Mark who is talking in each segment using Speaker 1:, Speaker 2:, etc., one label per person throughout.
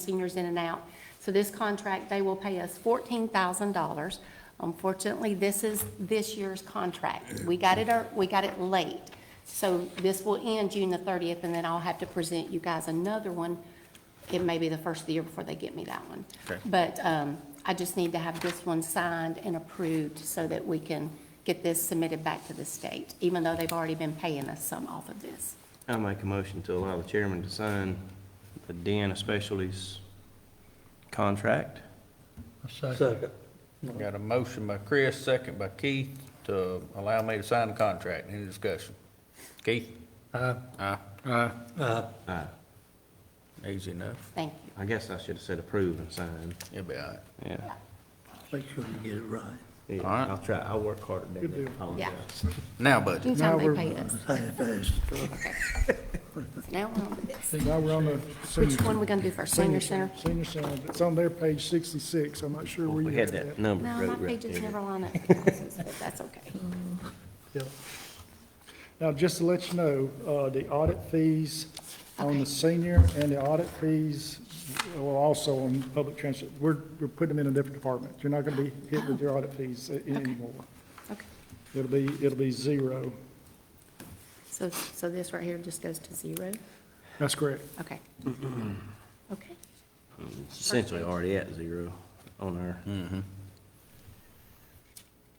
Speaker 1: seniors in and out. So this contract, they will pay us fourteen thousand dollars. Unfortunately, this is this year's contract. We got it, ear- we got it late. So this will end June the thirtieth, and then I'll have to present you guys another one. It may be the first of the year before they get me that one.
Speaker 2: Okay.
Speaker 1: But um, I just need to have this one signed and approved so that we can get this submitted back to the state, even though they've already been paying us some off of this.
Speaker 3: I'll make a motion to allow the chairman to sign the Deanna Specialties contract.
Speaker 4: Second.
Speaker 5: Got a motion by Chris, second by Keith, to allow me to sign the contract. Any discussion? Keith?
Speaker 4: Aye.
Speaker 5: Aye.
Speaker 4: Aye.
Speaker 3: Aye.
Speaker 5: Easy enough.
Speaker 1: Thank you.
Speaker 3: I guess I should have said approve and sign.
Speaker 5: You'll be all right.
Speaker 3: Yeah.
Speaker 4: Make sure you get it right.
Speaker 3: Yeah,
Speaker 5: All right.
Speaker 3: I'll try, I'll work harder than that. I
Speaker 1: Yeah.
Speaker 3: apologize.
Speaker 5: Now budget.
Speaker 1: Anytime they pay us.
Speaker 4: Say it fast.
Speaker 1: Now we're on this.
Speaker 6: See, Now we're on the senior.
Speaker 1: Which one we gonna do first, senior center?
Speaker 6: Senior center, it's on their page sixty-six, I'm not sure where
Speaker 3: We
Speaker 6: you
Speaker 3: had
Speaker 6: have
Speaker 3: that
Speaker 6: that.
Speaker 3: number.
Speaker 1: No,
Speaker 3: wrote
Speaker 1: my
Speaker 3: right
Speaker 1: pages
Speaker 3: there.
Speaker 1: never line up, with Alice's, but that's okay.
Speaker 6: Yep. Now, just to let you know, uh, the audit fees on
Speaker 1: Okay.
Speaker 6: the senior and the audit fees will also on public transit. We're, we're putting them in a different department. You're not gonna be hit with your audit fees a- anymore.
Speaker 1: Okay.
Speaker 6: It'll be, it'll be zero.
Speaker 1: So, so this right here just goes to zero?
Speaker 6: That's correct.
Speaker 1: Okay.
Speaker 5: Mm-hmm.
Speaker 1: Okay.
Speaker 3: It's Essentially already at zero on our,
Speaker 5: Hmm. Mm-hmm.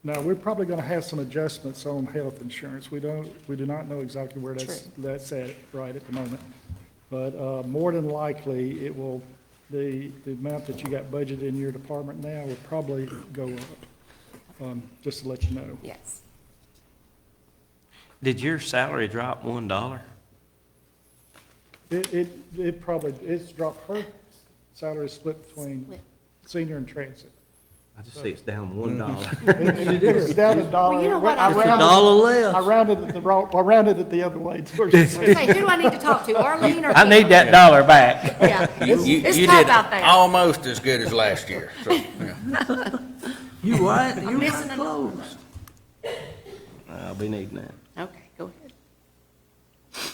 Speaker 6: Now, we're probably gonna have some adjustments on health insurance. We don't, we do not know exactly where that's,
Speaker 1: True.
Speaker 6: that's at right at the moment. But, uh, more than likely, it will, the, the amount that you got budgeted in your department now will probably go up. Um, just to let you know.
Speaker 1: Yes.
Speaker 3: did your salary drop one dollar?
Speaker 6: It, it, it probably, it's dropped, her salary is split between
Speaker 1: Split.
Speaker 6: senior and transit.
Speaker 3: I just see it's down one dollar.
Speaker 6: Hmm. It is down a dollar.
Speaker 1: Well, you know what, I
Speaker 6: I
Speaker 1: was- It's a
Speaker 6: rounded-
Speaker 3: dollar less.
Speaker 6: I rounded it the wrong, I rounded it the other way towards the senior.
Speaker 1: Okay, who do I need to talk to, Arlene or?
Speaker 3: I need that dollar back.
Speaker 1: Yeah.
Speaker 5: You, you,
Speaker 1: it's
Speaker 5: you
Speaker 1: tough
Speaker 5: did
Speaker 1: out there.
Speaker 5: almost as good as last year, so, yeah.
Speaker 4: You what? You
Speaker 1: missing a-
Speaker 4: not close.
Speaker 3: Uh, I'll be needing that.
Speaker 1: Okay, go ahead.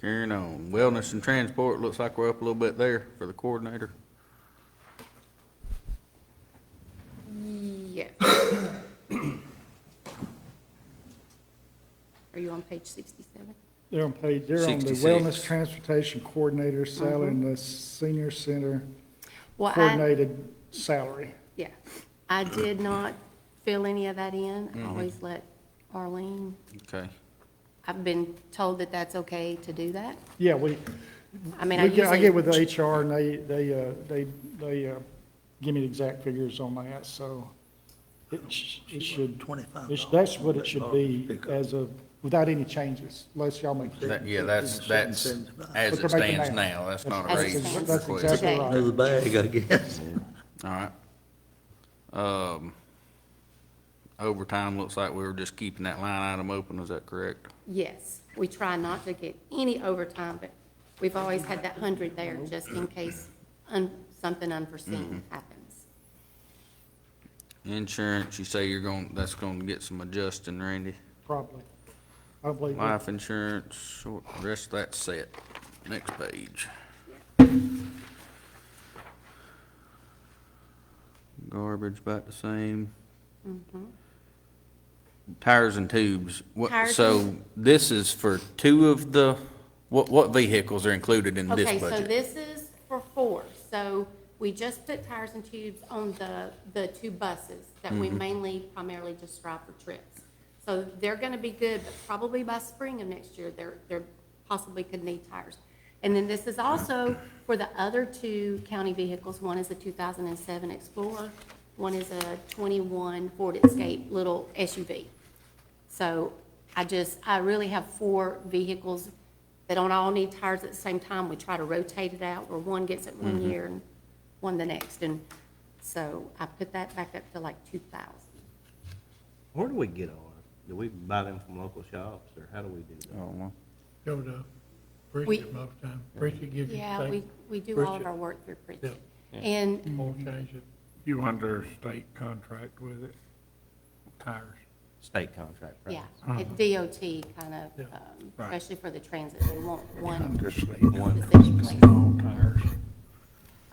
Speaker 5: Carrying on. Wellness and transport, looks like we're up a little bit there for the coordinator.
Speaker 1: Yeah. Are you on page sixty-seven?
Speaker 6: They're on page, they're on the
Speaker 5: 66.
Speaker 6: Wellness Transportation Coordinator salary and the Senior Center
Speaker 1: Well, I,
Speaker 6: Coordinated salary.
Speaker 1: yeah, I did not fill any of that in.
Speaker 5: Mm-hmm.
Speaker 1: I always let Arlene,
Speaker 5: Okay.
Speaker 1: I've been told that that's okay to do that.
Speaker 6: Yeah, we,
Speaker 1: I mean, I
Speaker 6: we
Speaker 1: usually.
Speaker 6: get, I get with the HR and they, they, uh, they, they, uh, give me the exact figures on that, so it, sh- it should,
Speaker 4: Twenty-five.
Speaker 6: it's, that's what it should be as of, without any changes, unless y'all make.
Speaker 5: That, yeah, that's, that's, as
Speaker 6: But they're
Speaker 5: it
Speaker 6: making
Speaker 5: stands
Speaker 6: that.
Speaker 5: now, that's not a
Speaker 1: As it
Speaker 5: raise
Speaker 1: stands.
Speaker 6: That's
Speaker 5: request.
Speaker 6: exactly
Speaker 1: Okay.
Speaker 6: right.
Speaker 4: Another bag, I guess.
Speaker 5: All right. Um, overtime, looks like we were just keeping that line item open, is that correct?
Speaker 1: Yes, we try not to get any overtime, but we've always had that hundred there just in case un, something unforeseen happens.
Speaker 5: Insurance, you say you're going, that's going to get some adjusting, Randy.
Speaker 6: Probably. I don't believe,
Speaker 5: Life insurance, short, rest of that's set. Next page. Garbage about the same.
Speaker 1: Mm-hmm.
Speaker 5: Tires and tubes, what,
Speaker 1: Tires
Speaker 5: so
Speaker 1: and-
Speaker 5: this is for two of the, what, what vehicles are included in
Speaker 1: Okay,
Speaker 5: this
Speaker 1: so
Speaker 5: budget?
Speaker 1: this is for four, so we just put tires and tubes on the, the two buses that
Speaker 5: Mm-hmm.
Speaker 1: we mainly primarily just drive for trips. So they're gonna be good, but probably by spring of next year, they're, they're possibly could need tires. And then this is also for the other two county vehicles, one is a two thousand and seven Explorer, one is a twenty-one Ford Escape little SUV. So I just, I really have four vehicles that don't all need tires at the same time. We try to rotate it out where one gets it one
Speaker 7: Mm-hmm.
Speaker 1: year and one the next. And so I put that back up to like two thousand.
Speaker 3: Where do we get ours? Do we buy them from local shops or how do we do that?
Speaker 5: Oh,
Speaker 7: go to
Speaker 1: We-
Speaker 7: Bridget most time. Bridget gives you
Speaker 1: Yeah, we,
Speaker 7: things,
Speaker 1: we do all of
Speaker 7: Bridget.
Speaker 1: our work through Bridget. And,
Speaker 7: more changes. You under state contract with it, tires.
Speaker 3: State contract, right?
Speaker 1: yeah, at DOT kind of,
Speaker 7: Uh-huh. Yeah,
Speaker 1: um,
Speaker 7: right.
Speaker 1: especially for the transit, they want one
Speaker 7: Just
Speaker 1: specific place.
Speaker 7: tires.